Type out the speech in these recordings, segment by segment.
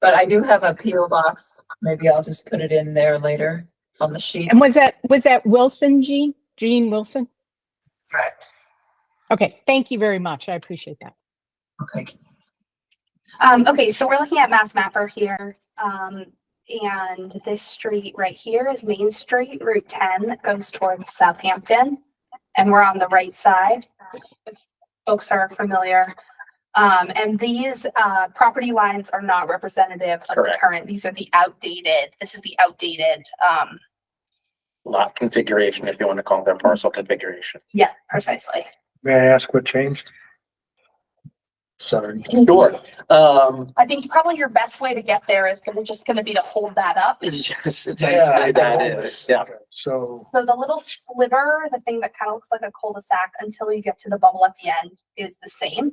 But I do have a PO box. Maybe I'll just put it in there later on the sheet. And was that, was that Wilson, Jean? Jean Wilson? Correct. Okay, thank you very much. I appreciate that. Okay. Um, okay, so we're looking at Mass Mapper here. Um, and this street right here is Main Street, Route ten, that goes towards Southampton. And we're on the right side, if folks are familiar. Um, and these, uh, property lines are not representative of the Correct. current. These are the outdated, this is the outdated, um, lot configuration, if you want to call them parcel configuration. yeah, precisely. May I ask what changed? Sorry. Sure. Um, I think probably your best way to get there is gonna, just gonna be to hold that up yes, it's- Yeah. that is, yeah. So, So the little sliver, the thing that kind of looks like a cul-de-sac until you get to the bubble at the end is the same.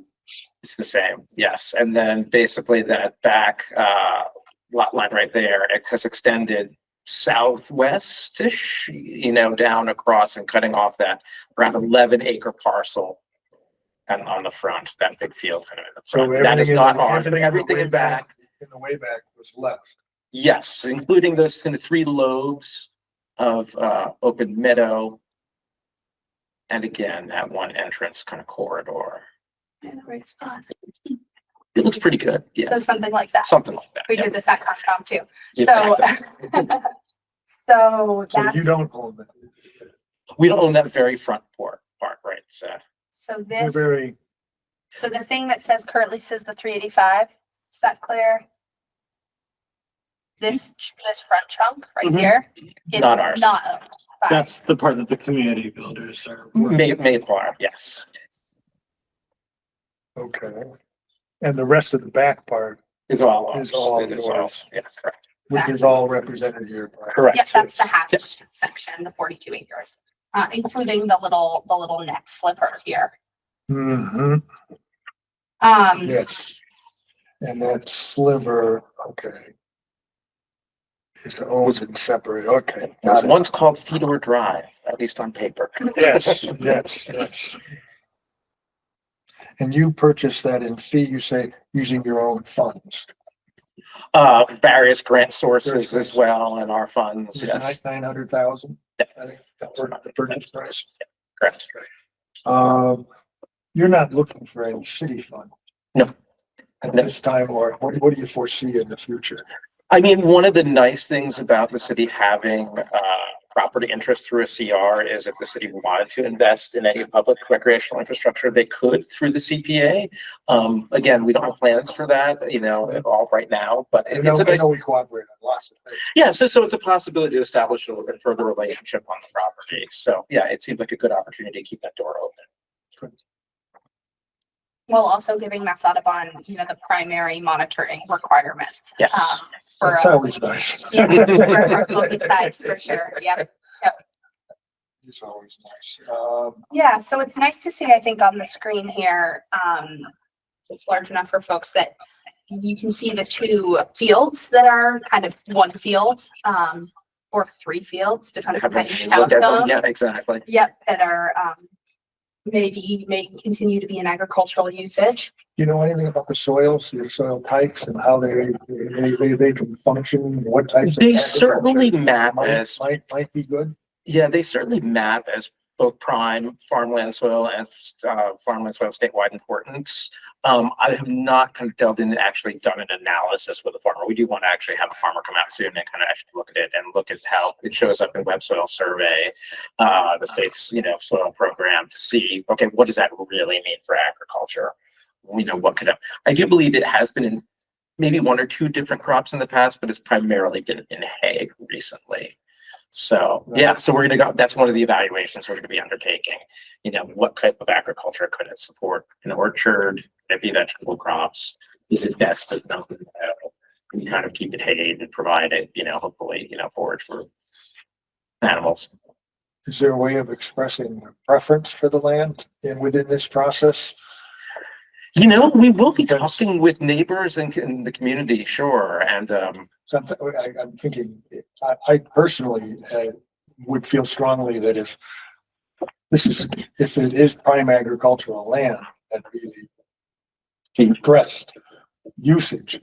It's the same, yes. And then basically that back uh lot line right there, it has extended southwestish, you know, down across and cutting off that around eleven acre parcel. And on the front, that big field kind of in the so front. That is everything, in- not ours, everything in the everything way in back. back, in the way back was left. Yes, including those kind of three lobes of uh open meadow. And again, that one entrance kind of corridor. In the right spot. It looks pretty good, yeah, So something like that. something like that. We yeah. did this at Concom too. Yeah, So, exactly. so So you that's, don't own that. uh, We don't own that very front port part, right? So so You're this, very, so the thing that says currently says the three eighty-five, is that clear? This, ch- this front chunk right Mhm. here is Hmm? Not ours. not owned by- That's the part that the community builders are. Mm-hmm. working May, Mayflower, yes. okay. And the rest of the back part, Is all ours. Is all It is yours. Yeah, correct. which is all represented here. by- Correct. Yep, that's the half Yes. section, the forty-two acres, uh, including the little, the little neck sliver here. hmm Um, yes. And that sliver, okay. It's owned and separate, okay. It was got it. once called Fedor Drive, at least on paper. Mm-hmm. Yes, yes, yes. And you purchased that in fee, you say, using your own funds. Uh, various grant sources Various as well and our funds, Is it yes. Nine hundred thousand, I Yes, think, that were the purchase price. Correct. Um, you're not looking for any city fund? No. At No. this time, or what, what do you foresee in the future? I mean, one of the nice things about the city having uh property interest through a CR is if the city wanted to invest in any public recreational infrastructure, they could through the CPA. Um, again, we don't have plans for that, you know, at all right now, but I it- know, it's a I nice, know we cooperate on lots of things. yeah, so so it's a possibility to establish a little bit further relationship on the property. So, yeah, it seems like a good opportunity to keep that door open. while also giving Mass Audubon, you know, the primary monitoring requirements. Yes. um, For, That's uh, always nice. yeah, for our smoky sides, for sure, yeah. It's always nice. Um, Yeah, so it's nice to see, I think, on the screen here, um, it's large enough for folks that you can see the two fields that are kind of one field, um, or three fields, depends on how Haven't you looked count at them them. yet, exactly. Yep, that are, um, maybe may continue to be in agricultural usage. you know anything about the soils, your soil types and how they, they, they, they can function, what types? of They agriculture certainly map Might, as might, might be good. Yeah, they certainly map as both prime farmland soil and uh, farmland soil statewide importance. Um, I have not kind of delved in and actually done an analysis with a farmer. We do want to actually have a farmer come out soon and kind of actually look at it and look at how it shows up in Web Soil Survey, uh, the state's you know soil program to see okay what does that really mean for agriculture? You know what could have, I do believe it has been in maybe one or two different crops in the past, but it's primarily been in hay recently. So, yeah, so we're gonna go, that's one of the evaluations we're gonna be undertaking. You know, what type of agriculture could it support? An orchard, could it be vegetable crops? Is it best to dump it out? Can you kind of keep it hay and provide it, you know, hopefully, you know, forage for animals? Is there a way of expressing preference for the land in, within this process? You know, we will be Because- talking with neighbors and c- and the community, sure, and um, Something, I, I'm thinking, I, I personally, uh, would feel strongly that if this is, if it is prime agricultural land, that'd be the stressed usage